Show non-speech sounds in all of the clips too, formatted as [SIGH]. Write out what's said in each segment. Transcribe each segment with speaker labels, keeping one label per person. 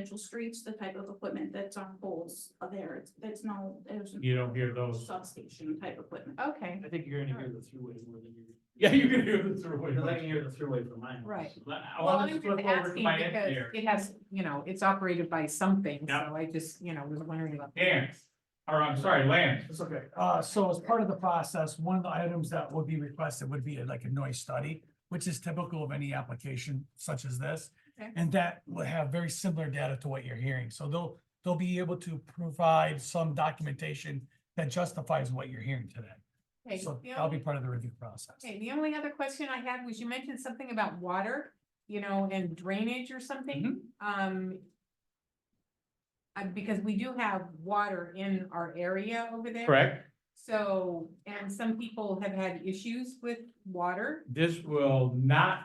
Speaker 1: residential streets, the type of equipment that's on poles are there, it's, it's no, there's.
Speaker 2: You don't hear those.
Speaker 1: Substation type equipment.
Speaker 3: Okay,
Speaker 4: I think you're gonna hear the throughway more [LAUGHS] than you're.
Speaker 2: Yeah, you're gonna hear the
Speaker 4: You're not gonna
Speaker 2: throughway.
Speaker 4: hear the throughway from mine.
Speaker 3: Right.
Speaker 2: Let- I
Speaker 3: well,
Speaker 2: wanted
Speaker 3: I'm
Speaker 2: to
Speaker 3: just
Speaker 2: flip over to
Speaker 3: asking
Speaker 2: my
Speaker 3: because
Speaker 2: engineer.
Speaker 3: it has, you know, it's operated by something, so
Speaker 2: Yeah.
Speaker 3: I just, you know, was wondering about.
Speaker 2: Dan, or I'm sorry, Lance.
Speaker 5: It's okay. Uh, so as part of the process, one of the items that would be requested would be like a noise study, which is typical of any application such as this.
Speaker 3: Okay.
Speaker 5: And that will have very similar data to what you're hearing. So they'll, they'll be able to provide some documentation that justifies what you're hearing today.
Speaker 3: Okay,
Speaker 5: So
Speaker 3: the
Speaker 5: that'll be
Speaker 3: only-
Speaker 5: part of the review process.
Speaker 3: Okay, the only other question I had was you mentioned something about water, you know, and drainage or something,
Speaker 2: Mm-hmm.
Speaker 3: um. uh, because we do have water in our area over there.
Speaker 2: Correct.
Speaker 3: So, and some people have had issues with water.
Speaker 2: This will not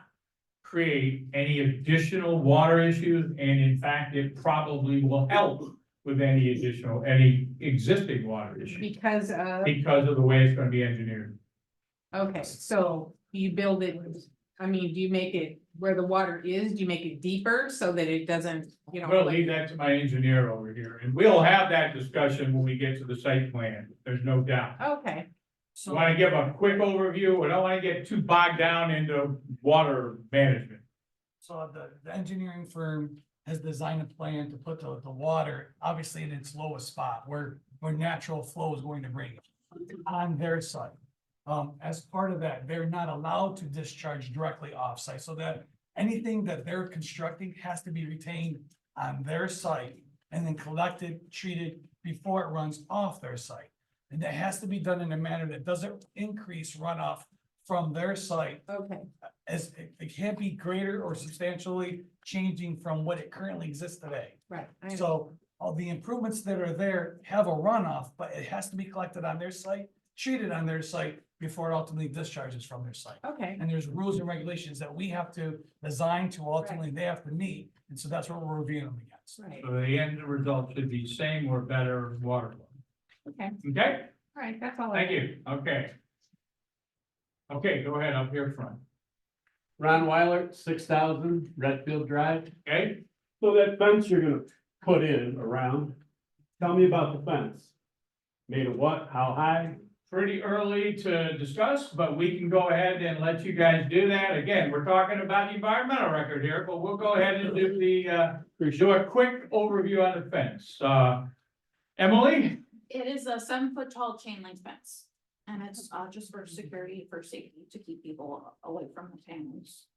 Speaker 2: create any additional water issues, and in fact, it probably will help with any additional, any existing water issues
Speaker 3: Because of,
Speaker 2: because of the way it's gonna be engineered.
Speaker 3: okay, so you build it, I mean, do you make it where the water is, do you make it deeper so that it doesn't, you know?
Speaker 2: I'm gonna
Speaker 3: like-
Speaker 2: leave that to my engineer over here, and we'll have that discussion when we get to the site plan, there's no doubt.
Speaker 3: Okay,
Speaker 5: So.
Speaker 2: Want to give a quick overview, we don't want to get too bogged down into water management.
Speaker 5: So the, the engineering firm has designed a plan to put the, the water, obviously in its lowest spot where, where natural flow is going to bring it on their site. Um, as part of that, they're not allowed to discharge directly off-site, so that anything that they're constructing has to be retained on their site and then collected, treated before it runs off their site. And that has to be done in a manner that doesn't increase runoff from their site
Speaker 3: okay,
Speaker 5: as it- it can't be greater or substantially changing from what it currently exists today.
Speaker 3: right. I understand.
Speaker 5: So all the improvements that are there have a runoff, but it has to be collected on their site, treated on their site before it ultimately discharges from their site.
Speaker 3: Okay,
Speaker 5: And there's rules and regulations that we have to design to ultimately they have to meet, and so that's what we're reviewing them against.
Speaker 3: right,
Speaker 2: So the end result should be same or better water. flow.
Speaker 3: okay,
Speaker 2: Okay,
Speaker 3: all right, that's all. I
Speaker 2: thank you, okay. Okay, go ahead, up here front,
Speaker 4: Ron Weiler, six thousand Redfield Drive.
Speaker 2: okay?
Speaker 6: So that fence you're gonna put in around, tell me about the fence. Made of what, how high?
Speaker 2: Pretty early to discuss, but we can go ahead and let you guys do that. Again, we're talking about the environmental record here, but we'll go ahead and do the, uh, do a quick overview on the fence. Uh, Emily,
Speaker 1: It is a seven foot tall chain link fence. And it's, uh, just for security, for safety, to keep people away from the panels.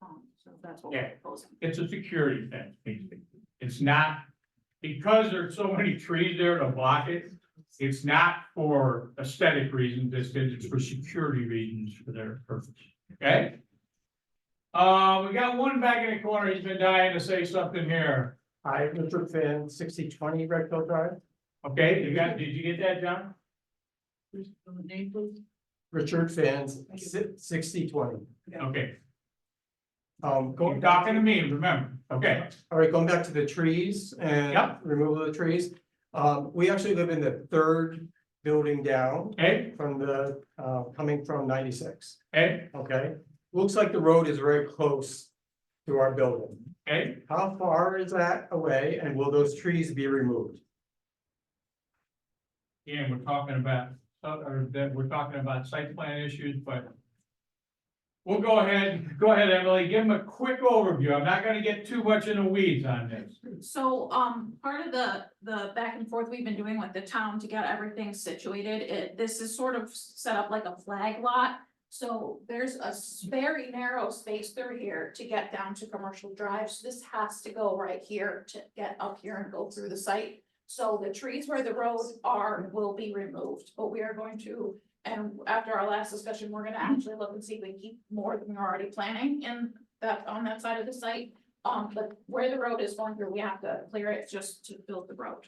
Speaker 1: Um, so that's what we're
Speaker 2: Yeah.
Speaker 1: proposing.
Speaker 2: it's a security fence, basically. It's not, because there's so many trees there to block it, it's not for aesthetic reasons, it's, it's for security reasons for their purpose, okay? Uh, we got one back in the corner, he's been dying to say something here,
Speaker 6: Hi, Richard Finn, sixty twenty Redfield Drive.
Speaker 2: okay, you got, did you get that, John?
Speaker 6: Richard Finn, sixty twenty.
Speaker 2: Okay,
Speaker 6: Um,
Speaker 2: you're
Speaker 6: going back,
Speaker 2: talking to me, remember, okay,
Speaker 6: all right, going back to the trees and
Speaker 2: Yep.
Speaker 6: removal of the trees. Um, we actually live in the third building down
Speaker 2: okay,
Speaker 6: from the, uh, coming from ninety-six,
Speaker 2: okay,
Speaker 6: okay? Looks like the road is very close to our building.
Speaker 2: okay,
Speaker 6: How far is that away and will those trees be removed?
Speaker 2: and we're talking about, uh, or that, we're talking about site plan issues, but we'll go ahead, go ahead, Emily, give him a quick overview, I'm not gonna get too much in the weeds on this.
Speaker 1: So, um, part of the, the back and forth we've been doing with the town to get everything situated, it, this is sort of set up like a flag lot. So there's a s- very narrow space through here to get down to commercial drives. This has to go right here to get up here and go through the site. So the trees where the roads are will be removed, but we are going to, and after our last discussion, we're gonna actually look and see if we keep more than we're already planning in that, on that side of the site. Um, but where the road is going through, we have to clear it just to build the road.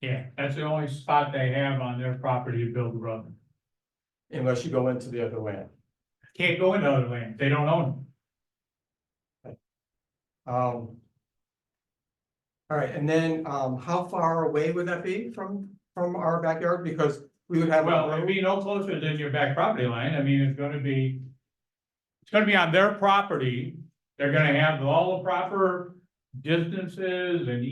Speaker 2: Yeah, that's the only spot they have on their property to build a road.
Speaker 6: Unless you go into the other land.
Speaker 2: Can't go into other land, they don't own
Speaker 6: Um. All right, and then, um, how far away would that be from, from our backyard? Because we would
Speaker 2: it.
Speaker 6: have. a
Speaker 2: Well,
Speaker 6: road-
Speaker 2: it'd be no closer than your back property line, I mean, it's gonna be, it's gonna be on their property. They're gonna have all the proper distances and